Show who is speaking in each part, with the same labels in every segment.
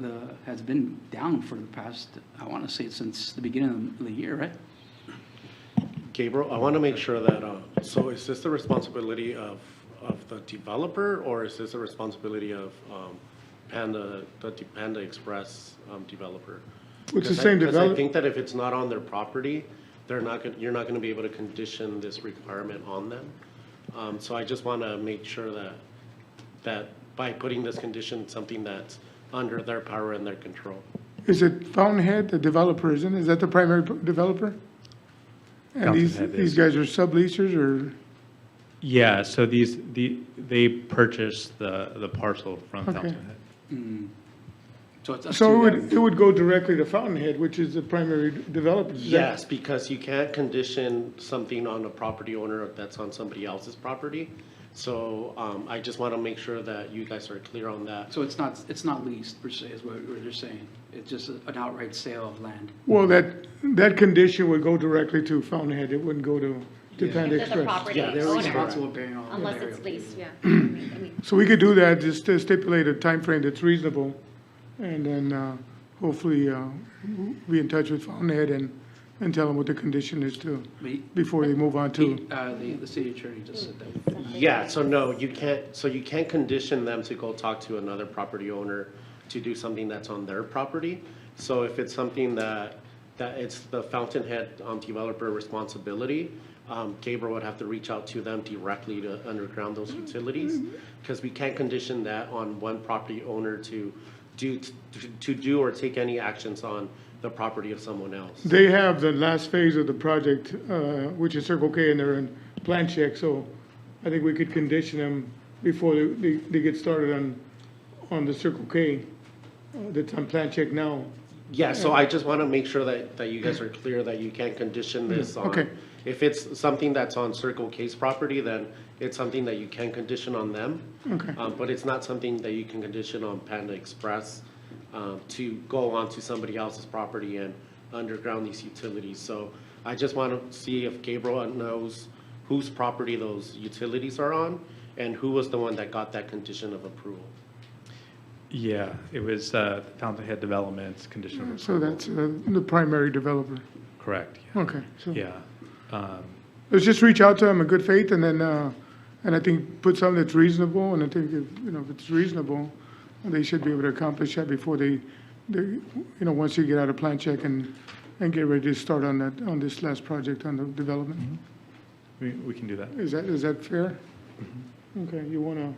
Speaker 1: the, has been down for the past, I want to say it's since the beginning of the year, right?
Speaker 2: Gabriel, I want to make sure that, uh, so is this the responsibility of, of the developer, or is this the responsibility of um, Panda, the de- Panda Express um, developer?
Speaker 3: It's the
Speaker 2: Because I-
Speaker 3: same
Speaker 2: because I
Speaker 3: develop-
Speaker 2: think that if it's not on their property, they're not, gon- you're not going to be able to condition this requirement on them. Um, So I just want to make sure that, that by putting this condition, something that's under their power and their control.
Speaker 3: Is it Fountainhead, the developer, isn't, it? is that the primary p- developer? And these,
Speaker 4: Fountainhead
Speaker 3: these
Speaker 4: is.
Speaker 3: guys are subleasers or,
Speaker 4: Yeah, so these, the, they purchased the, the parcel from
Speaker 3: Okay.
Speaker 4: Fountainhead.
Speaker 1: So it's up
Speaker 3: so it
Speaker 1: to
Speaker 3: would, it
Speaker 1: them.
Speaker 3: would go directly to Fountainhead, which is the primary d- developer. is that-
Speaker 2: Yes, because you can't condition something on a property owner that's on somebody else's property. So um, I just want to make sure that you guys are clear on that.
Speaker 1: So it's not, it's not leased per se, is what what you're saying. It's just an outright sale of land.
Speaker 3: Well, that, that condition would go directly to Fountainhead, it wouldn't go to, to Panda
Speaker 5: If they're the
Speaker 3: Express.
Speaker 5: property
Speaker 2: Yeah, they're
Speaker 1: They're
Speaker 5: owner,
Speaker 1: responsible bearing all the
Speaker 5: unless
Speaker 1: area.
Speaker 5: it's leased, yeah. I mean,
Speaker 3: So we could do that, just to stipulate a time frame that's reasonable, and then, uh, hopefully, uh, we'll be in touch with Fountainhead and, and tell them what the condition is to,
Speaker 1: But
Speaker 3: before they move on to,
Speaker 1: he- uh, The, the city attorney just said that.
Speaker 2: Yeah, so no, you can't, so you can't condition them to go talk to another property owner to do something that's on their property. So if it's something that, that it's the Fountainhead um, developer responsibility, um, Gabriel would have to reach out to them directly to underground those utilities. Because we can't condition that on one property owner to do, to- to do or take any actions on the property of someone else.
Speaker 3: they have the last phase of the project, uh, which is Circle K, and they're in plan check, so I think we could condition them before they, they they get started on, on the Circle K uh, that's on plan check now.
Speaker 2: Yeah, so I just want to make sure that, that you guys are clear that you can't condition this
Speaker 3: okay.
Speaker 2: on. If it's something that's on Circle K's property, then it's something that you can condition on them.
Speaker 3: Okay.
Speaker 2: Um, But it's not something that you can condition on Panda Express um, to go onto somebody else's property and underground these utilities. So I just want to see if Gabriel knows whose property those utilities are on and who was the one that got that condition of approval.
Speaker 4: Yeah, it was uh, Fountainhead Developments, conditional
Speaker 3: So
Speaker 4: approval.
Speaker 3: that's uh, the primary developer.
Speaker 4: Correct, yeah.
Speaker 3: Okay, so
Speaker 4: Yeah. Um,
Speaker 3: let's just reach out to them in good faith, and then, uh, and I think put something that's reasonable, and I think, if you know, if it's reasonable, they should be able to accomplish that before they, they, you know, once you get out of plan check and, and get ready to start on that, on this last project on the development.
Speaker 4: We, we can do that.
Speaker 3: Is that, is that fair? Okay, you want to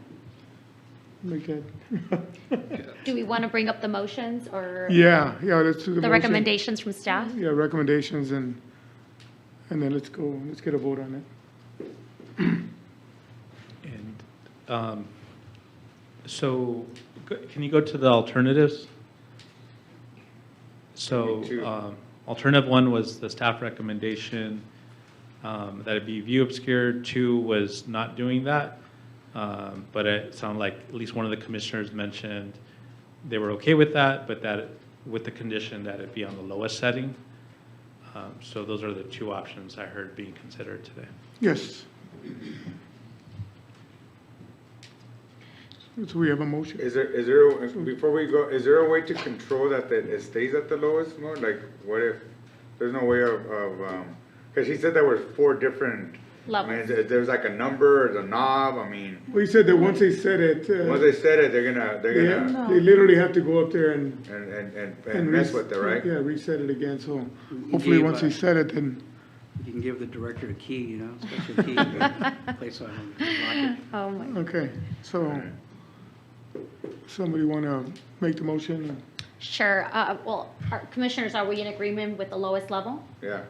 Speaker 3: make that?
Speaker 5: Do we want to bring up the motions or
Speaker 3: Yeah, yeah, that's.
Speaker 5: the recommendations from staff?
Speaker 3: Yeah, recommendations, and, and then let's go, let's get a vote on it.
Speaker 4: And um, so, go- can you go to the alternatives? So, um, alternative one was the staff recommendation um, that it be view obscure. Two was not doing that. Um, But it sounded like at least one of the commissioners mentioned they were okay with that, but that it- with the condition that it be on the lowest setting. Um, So those are the two options I heard being considered today.
Speaker 3: Yes. So we have a motion.
Speaker 6: Is there, is there, before we go, is there a way to control that, that it stays at the lowest mode? Like, what if, there's no way of, of, um, cause he said there were four different. I mean,
Speaker 5: Levels.
Speaker 6: is- there's like a number, the knob, I mean,
Speaker 3: We said that once they said it,
Speaker 6: once
Speaker 3: uh,
Speaker 6: they said it, they're gonna,
Speaker 3: they
Speaker 6: they're gonna,
Speaker 3: have- they literally have to go up there and.
Speaker 6: and, and, and-
Speaker 3: and
Speaker 6: and mess
Speaker 3: res-
Speaker 6: with it, right?
Speaker 3: Yeah, reset it again, so
Speaker 1: We
Speaker 3: hopefully,
Speaker 1: gave,
Speaker 3: once
Speaker 1: uh,
Speaker 3: they said it, then,
Speaker 1: You can give the director a key, you know, special key, place on lock it.
Speaker 5: Oh, my.
Speaker 3: okay, so. Somebody want to make the motion?
Speaker 5: Sure. Uh, Well, are- commissioners, are we in agreement with the lowest level?
Speaker 6: Yeah,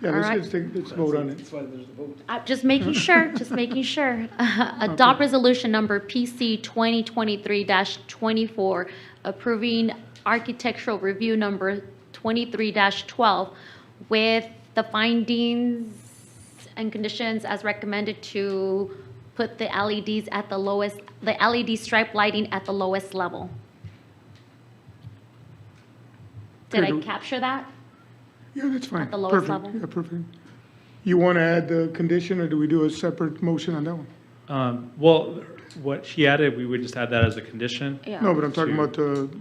Speaker 3: Yeah,
Speaker 5: All
Speaker 3: let's,
Speaker 5: right.
Speaker 3: let's take, let's vote on it.
Speaker 1: That's why there's the vote.
Speaker 5: Uh, Just making sure, just making sure. Adopt resolution number PC 2023-24, approving architectural review number 23-12 with the findings and conditions as recommended to put the LEDs at the lowest, the LED stripe lighting at the lowest level. Did I
Speaker 3: Good.
Speaker 5: capture that?
Speaker 3: Yeah, that's fine.
Speaker 5: the lowest
Speaker 3: Perfect.
Speaker 5: level?
Speaker 3: Yeah, perfect. You want to add the condition, or do we do a separate motion on that one?
Speaker 4: Um, Well, what she added, we would just add that as a condition.
Speaker 5: Yeah.
Speaker 3: No, but I'm talking
Speaker 4: Two.
Speaker 3: about the